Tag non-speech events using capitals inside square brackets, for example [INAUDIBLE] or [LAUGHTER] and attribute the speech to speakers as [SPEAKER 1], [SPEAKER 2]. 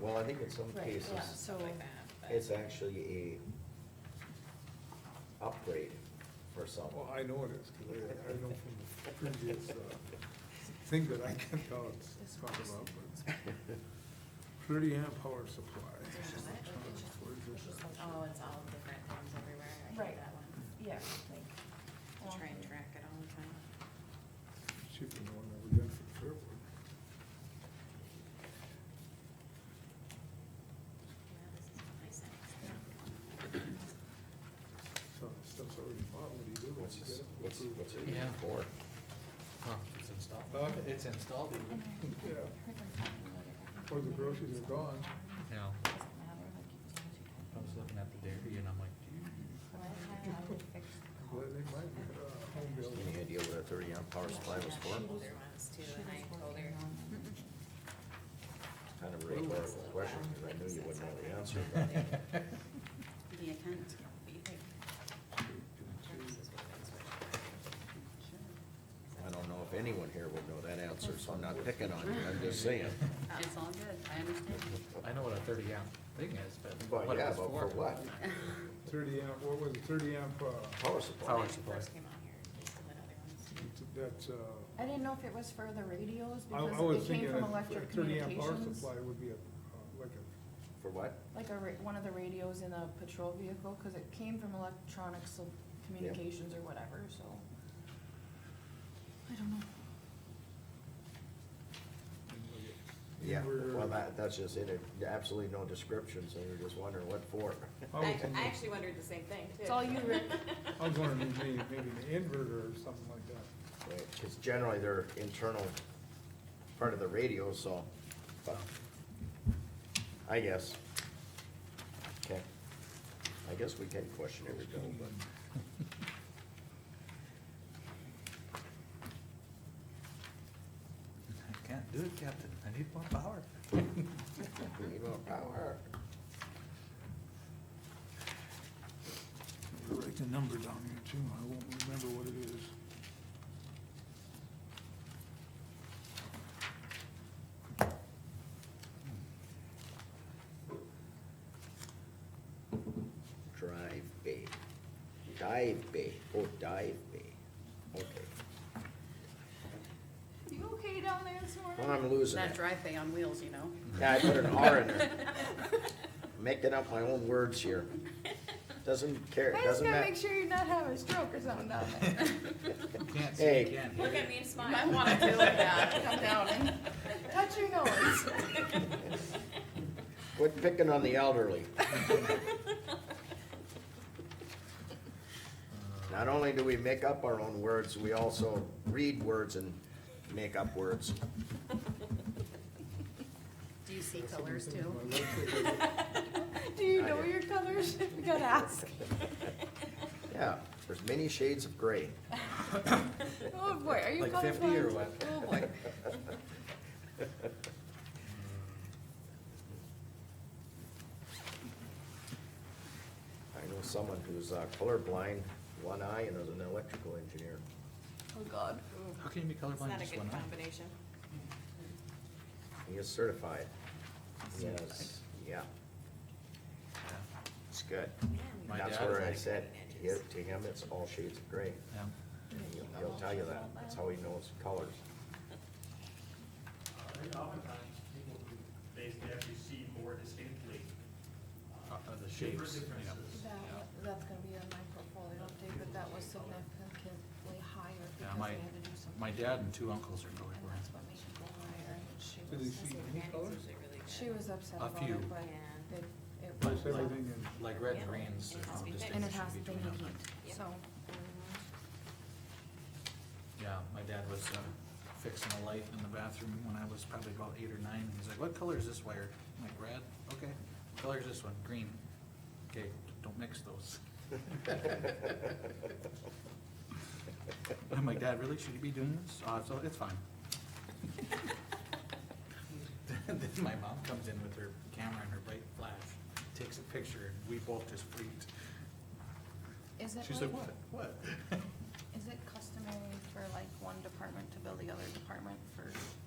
[SPEAKER 1] Well, I think in some
[SPEAKER 2] Right,
[SPEAKER 1] cases,
[SPEAKER 2] yeah, so,
[SPEAKER 3] like that, but-
[SPEAKER 1] it's actually a upgrade for someone.
[SPEAKER 4] Well, I know it is, because I, I know from the previous, uh, thing that I [LAUGHS] can tell it's talk about, but pretty amp power supply. electronics, where is this at?
[SPEAKER 3] Oh, it's all different times everywhere, I
[SPEAKER 2] Right.
[SPEAKER 3] hate that one,
[SPEAKER 2] yeah, like.
[SPEAKER 3] to try and track it all the time.
[SPEAKER 4] Cheaper than the one that we got for Fairwood.
[SPEAKER 3] Yeah, this is what I sent.
[SPEAKER 4] So the stuff's already bought, what do you do?
[SPEAKER 1] What's,
[SPEAKER 4] You
[SPEAKER 1] this-
[SPEAKER 4] get it?
[SPEAKER 1] what's, what's it
[SPEAKER 5] Yeah.
[SPEAKER 1] for?
[SPEAKER 5] Huh, Oh, it's installed.
[SPEAKER 4] Huh?
[SPEAKER 5] It's installed.
[SPEAKER 4] [LAUGHS] Yeah, or the groceries are gone.
[SPEAKER 5] Now, I was looking at the dairy and I'm like,
[SPEAKER 4] [LAUGHS] I'm glad they might be, uh, home built.
[SPEAKER 1] Any idea what a thirty amp power supply was for?
[SPEAKER 3] Older ones too, and I told her,
[SPEAKER 1] Kind of a rhetorical question, because I knew you wouldn't know the answer, but
[SPEAKER 5] dude.
[SPEAKER 3] the account, you think, Jerks is what it's
[SPEAKER 1] I don't know if anyone here would know that answer, so I'm not picking on you, I'm just saying.
[SPEAKER 3] worth. It's all good, I understand.
[SPEAKER 5] [LAUGHS] I know what a thirty amp thing is, but
[SPEAKER 1] But
[SPEAKER 5] what it
[SPEAKER 1] yeah,
[SPEAKER 5] was
[SPEAKER 1] but for
[SPEAKER 5] [LAUGHS]
[SPEAKER 1] what?
[SPEAKER 4] Thirty amp, what was it, thirty amp, uh,
[SPEAKER 1] Power
[SPEAKER 3] When
[SPEAKER 1] supply.
[SPEAKER 3] I
[SPEAKER 5] Power supply.
[SPEAKER 3] first came out here, they still had other ones too.
[SPEAKER 4] that's, uh,
[SPEAKER 2] I didn't know if it was for the radios,
[SPEAKER 4] I, I was
[SPEAKER 2] because it
[SPEAKER 4] thinking
[SPEAKER 2] came
[SPEAKER 4] a
[SPEAKER 2] from electric
[SPEAKER 4] thirty amp power
[SPEAKER 2] communications.
[SPEAKER 4] supply would be a, uh, like a,
[SPEAKER 1] For what?
[SPEAKER 2] Like a, ra- one of the radios in a patrol vehicle, cause it came from electronics, of communications or whatever, so. I don't know.
[SPEAKER 1] Yeah,
[SPEAKER 4] We're-
[SPEAKER 1] well, that, that's just it, It- absolutely no description, so you're just wondering what for.
[SPEAKER 4] I was
[SPEAKER 3] I, I
[SPEAKER 4] thinking,
[SPEAKER 3] actually wondered the same thing too.
[SPEAKER 2] It's all you, Rick.
[SPEAKER 3] [LAUGHS]
[SPEAKER 4] I was wondering, maybe, maybe an inverter or something like that.
[SPEAKER 1] Because generally they're internal, part of the radio, so, but, I guess. Okay, I guess we can question every bill, but,
[SPEAKER 5] I can't do it, Captain. I need more power.
[SPEAKER 1] we need more power.
[SPEAKER 4] Write the number down here too, I won't remember what it is.
[SPEAKER 1] Drive bay, dive bay, oh, dive bay, okay.
[SPEAKER 2] You okay down there this
[SPEAKER 1] Well,
[SPEAKER 2] morning?
[SPEAKER 1] I'm losing
[SPEAKER 3] That
[SPEAKER 1] it.
[SPEAKER 3] drive bay on wheels, you know?
[SPEAKER 1] Yeah, I put an R in there.
[SPEAKER 3] [LAUGHS]
[SPEAKER 1] Making up my own words
[SPEAKER 2] [LAUGHS]
[SPEAKER 1] here. Doesn't care,
[SPEAKER 2] I just
[SPEAKER 1] doesn't
[SPEAKER 2] gotta
[SPEAKER 1] matter.
[SPEAKER 2] make sure you're not having a stroke or something down there.
[SPEAKER 5] You [LAUGHS] can't
[SPEAKER 1] Hey.
[SPEAKER 5] see, you can't hear.
[SPEAKER 3] Look at me and smile. [LAUGHS] I wanna do it now.
[SPEAKER 2] Come down and touch your nose.
[SPEAKER 3] [LAUGHS]
[SPEAKER 1] Quit picking on the elderly. Not only do we make up our own words, we also read words and make up words.
[SPEAKER 3] Do you see colors too?
[SPEAKER 4] My website is-
[SPEAKER 2] Do you
[SPEAKER 1] I
[SPEAKER 2] know
[SPEAKER 1] do.
[SPEAKER 2] your colors? [LAUGHS] You gotta ask.
[SPEAKER 1] Yeah, there's many shades of
[SPEAKER 2] [LAUGHS]
[SPEAKER 1] gray.
[SPEAKER 2] Oh boy, are you colorblind?
[SPEAKER 5] Like 50 or what?
[SPEAKER 2] Oh boy.
[SPEAKER 5] [LAUGHS] Mm.
[SPEAKER 1] I know someone who's uh, colorblind, one eye, and is an electrical engineer.
[SPEAKER 2] Oh god.
[SPEAKER 5] How can you be
[SPEAKER 3] It's
[SPEAKER 5] colorblind
[SPEAKER 3] not a
[SPEAKER 5] just
[SPEAKER 3] good
[SPEAKER 5] one eye?
[SPEAKER 3] combination.
[SPEAKER 1] He is certified.
[SPEAKER 5] Certified.
[SPEAKER 1] Yes, yeah, it's good.
[SPEAKER 3] Man,
[SPEAKER 5] My
[SPEAKER 1] That's
[SPEAKER 5] dad
[SPEAKER 1] where I
[SPEAKER 5] is
[SPEAKER 1] said,
[SPEAKER 3] like-
[SPEAKER 1] here, to him, it's all shades of gray.
[SPEAKER 5] Yeah. Uh,
[SPEAKER 1] And he'll- He'll tell you that, that's how he knows colors.
[SPEAKER 6] Uh, There's oftentimes people who, they can actually see more distinctly. uh,
[SPEAKER 5] Uh, the
[SPEAKER 6] different
[SPEAKER 5] shapes, you know.
[SPEAKER 6] differences.
[SPEAKER 2] That, that's gonna be on my portfolio update, but that was significantly higher
[SPEAKER 5] Yeah,
[SPEAKER 2] because
[SPEAKER 5] my,
[SPEAKER 2] they had to do something.
[SPEAKER 5] my dad and two uncles are
[SPEAKER 2] And that's
[SPEAKER 5] colorblind.
[SPEAKER 2] what made it go higher, and she
[SPEAKER 4] Did
[SPEAKER 2] was,
[SPEAKER 4] you see any colors?
[SPEAKER 2] she was upset
[SPEAKER 5] A
[SPEAKER 2] about
[SPEAKER 5] few.
[SPEAKER 2] it, but
[SPEAKER 3] Yeah.
[SPEAKER 2] it, it
[SPEAKER 5] But
[SPEAKER 2] was.
[SPEAKER 4] Most everything is.
[SPEAKER 5] Like red
[SPEAKER 3] Yeah.
[SPEAKER 5] and greens,
[SPEAKER 3] It
[SPEAKER 5] there's
[SPEAKER 3] has
[SPEAKER 5] no
[SPEAKER 3] to be fixed.
[SPEAKER 2] And it has
[SPEAKER 5] distinction
[SPEAKER 2] to be
[SPEAKER 5] between them.
[SPEAKER 2] heat,
[SPEAKER 3] [LAUGHS]
[SPEAKER 2] so.
[SPEAKER 5] Yeah, my dad was uh, fixing a light in the bathroom when I was probably about eight or nine, and he's like, what color is this wire? I'm like, red, okay. What color is this one? Green. Okay, don't mix those. [LAUGHS] I'm like, Dad, really, should you be doing this? Uh, so it's fine. [LAUGHS] Then my mom comes in with her camera and her bright flash, takes a picture, and we both just freaked.
[SPEAKER 2] Is it
[SPEAKER 5] She's
[SPEAKER 2] like,
[SPEAKER 5] like, what, what? [LAUGHS]
[SPEAKER 2] is it customary for like one department to bill the other department for